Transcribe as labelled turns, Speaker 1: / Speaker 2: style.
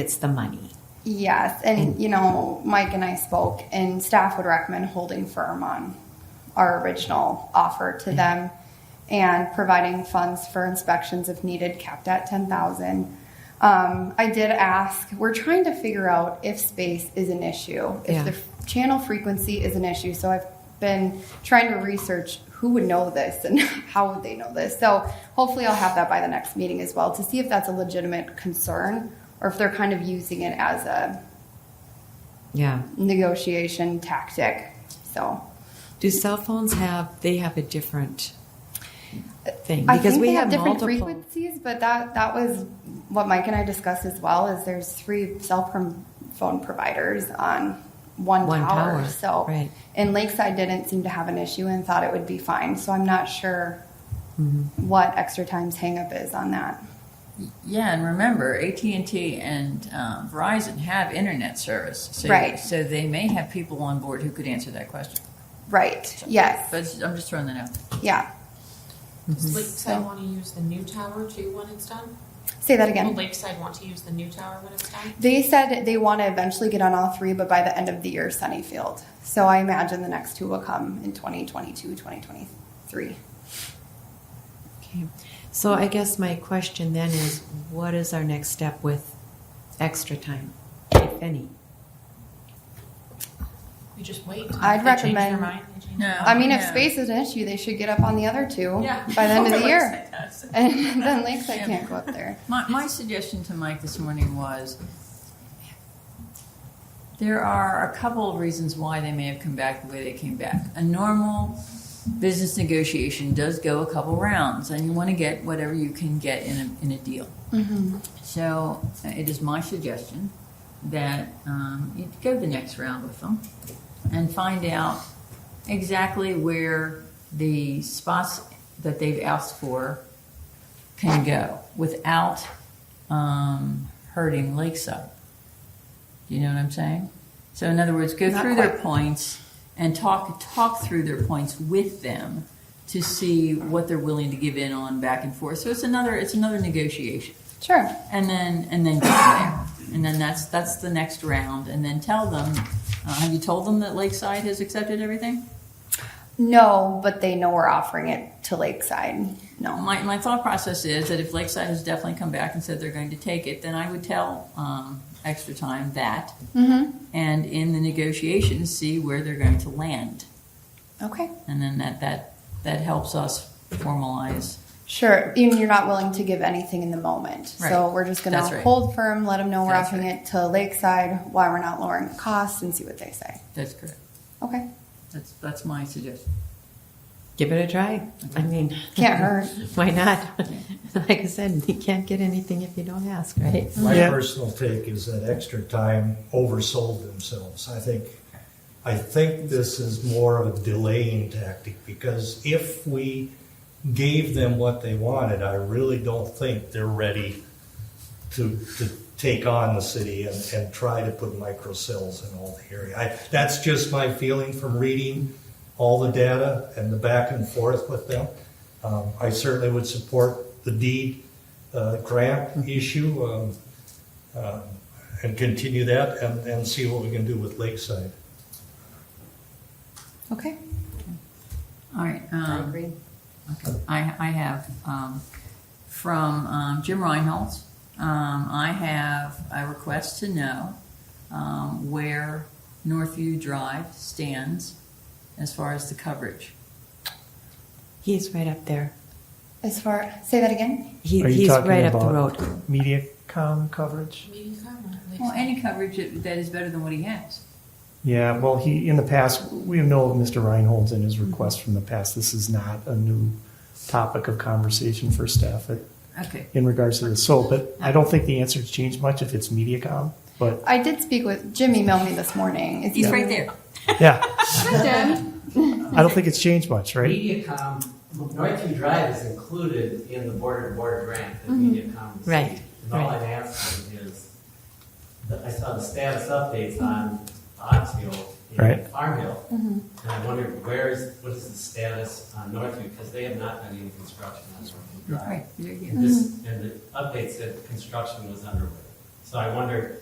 Speaker 1: It's the money.
Speaker 2: Yes, and you know, Mike and I spoke, and staff would recommend holding firm on our original offer to them and providing funds for inspections if needed, capped at ten thousand. Um, I did ask, we're trying to figure out if space is an issue, if
Speaker 1: Yeah.
Speaker 2: the f- channel frequency is an issue. So I've been trying to research who would know this and how would they know this. So hopefully I'll have that by the next meeting as well to see if that's a legitimate concern or if they're kind of using it as a
Speaker 1: Yeah.
Speaker 2: negotiation tactic. So
Speaker 1: Do cell phones have? They have a different thing
Speaker 2: I
Speaker 1: because
Speaker 2: think
Speaker 1: we
Speaker 2: they
Speaker 1: have,
Speaker 2: have different
Speaker 1: multiple.
Speaker 2: frequencies, but that that was what Mike and I discussed as well. Is there's three cell prom- phone providers on one,
Speaker 1: One
Speaker 2: tower,
Speaker 1: tower,
Speaker 2: so
Speaker 1: right.
Speaker 2: and Lakeside didn't seem to have an issue and thought it would be fine. So I'm not sure
Speaker 1: Mm-hmm.
Speaker 2: what extra times hangup is on that.
Speaker 3: Yeah, and remember, AT and T and uh, Verizon have internet service, so,
Speaker 2: Right.
Speaker 3: So they may have people on board who could answer that question.
Speaker 2: Right? Yes.
Speaker 3: But I'm just throwing that out.
Speaker 2: Yeah.
Speaker 4: Does Lakeside
Speaker 2: Mm-hmm. So-
Speaker 4: want to use the new tower too when it's done?
Speaker 2: Say that
Speaker 4: Will
Speaker 2: again.
Speaker 4: Lakeside want to use the new tower when it's done?
Speaker 2: They said they want to eventually get on all three, but by the end of the year, Sunnyfield. So I imagine the next two will come in 2022, 2023.
Speaker 1: Okay. So I guess my question then is, what is our next step with extra time, if any?
Speaker 4: We just wait.
Speaker 2: I'd
Speaker 4: They change their
Speaker 2: recommend-
Speaker 4: mind, they change-
Speaker 3: No,
Speaker 2: I mean, if
Speaker 3: no.
Speaker 2: space is an issue, they should get up on the other two
Speaker 4: Yeah.
Speaker 2: by the end of the year.
Speaker 4: Lakeside does.
Speaker 2: And then Lakeside
Speaker 3: Yeah.
Speaker 2: can't go up there.
Speaker 3: My, my suggestion to Mike this morning was there are a couple of reasons why they may have come back the way they came back. A normal business negotiation does go a couple rounds, and you want to get whatever you can get in a, in a deal. So uh, it is my suggestion that um, you go the next round with them and find out exactly where the spots that they've asked for can go without um, hurting Lakeside. You know what I'm saying? So in other words, go
Speaker 2: Not
Speaker 3: through their
Speaker 2: quite.
Speaker 3: points and talk talk through their points with them to see what they're willing to give in on back and forth. So it's another it's another negotiation
Speaker 2: Sure.
Speaker 3: and then and then go from there. And then that's that's the next round. And then tell them. Uh, have you told them that Lakeside has accepted everything?
Speaker 2: No, but they know we're offering it to Lakeside. No.
Speaker 3: My, my thought process is that if Lakeside has definitely come back and said they're going to take it, then I would tell um, Extra Time that,
Speaker 2: Mm-hmm.
Speaker 3: and in the negotiations, see where they're going to land,
Speaker 2: Okay.
Speaker 3: and then that that that helps us formalize.
Speaker 2: Sure. Even you're not willing to give anything in the moment. So
Speaker 3: Right.
Speaker 2: we're just going
Speaker 3: That's
Speaker 2: to
Speaker 3: right.
Speaker 2: hold firm, let them know we're
Speaker 3: That's
Speaker 2: offering
Speaker 3: right.
Speaker 2: it to Lakeside, why we're not lowering the cost, and see what they say.
Speaker 3: That's correct.
Speaker 2: Okay.
Speaker 3: That's that's my suggestion.
Speaker 1: Give it a try. I mean,
Speaker 2: Can't
Speaker 3: Mm-hmm.
Speaker 2: hurt.
Speaker 1: Why not? Like I said, you can't get anything if you don't ask, right?
Speaker 5: My
Speaker 6: Yeah.
Speaker 5: personal take is that extra time oversold themselves. I think, I think this is more of a delaying tactic because if we gave them what they wanted, I really don't think they're ready to, to take on the city and, and try to put micro cells in all the area. I, that's just my feeling from reading all the data and the back and forth with them. Um, I certainly would support the deed uh, grant issue um, um, and continue that and, and see what we can do with Lakeside.
Speaker 2: Okay.
Speaker 3: All right. Um,
Speaker 1: I agree.
Speaker 3: Okay. I, I have um, from um, Jim Reinholz. Um, I have a request to know um, where Northview Drive stands as far as the coverage.
Speaker 1: He's right up there.
Speaker 2: As far, say that again.
Speaker 1: He,
Speaker 6: Are you
Speaker 1: he's
Speaker 6: talking
Speaker 1: right up the
Speaker 6: about-
Speaker 1: road.
Speaker 6: MediaCom coverage.
Speaker 4: Maybe come on,
Speaker 3: Well,
Speaker 4: Lakeside.
Speaker 3: any coverage that that is better than what he has.
Speaker 6: Yeah, well, he in the past we know of Mr. Reinholds and his request from the past. This is not a new topic of conversation for staff at,
Speaker 3: Okay.
Speaker 6: in regards to this. So, but I don't think the answer's changed much if it's MediaCom. But
Speaker 2: I did speak with Jim. Emailed me this morning. Is he-
Speaker 3: He's right there.
Speaker 6: yeah,
Speaker 2: Jim.
Speaker 6: I don't think it's changed much, right?
Speaker 7: MediaCom, Northview Drive is included in the border-to-border grant that MediaCom received.
Speaker 1: Mm-hmm. Right,
Speaker 7: And all
Speaker 1: right.
Speaker 7: I'm asking is, that I saw the status updates on Ox Hill
Speaker 6: Right.
Speaker 7: and Farm Hill.
Speaker 1: Mm-hmm.
Speaker 7: And I wondered, where is, what is the status on Northview? Because they have not done any construction on Northview Drive.
Speaker 1: Mm-hmm.
Speaker 3: Right. There you go.
Speaker 7: And this, and the update said construction was underway. So I wonder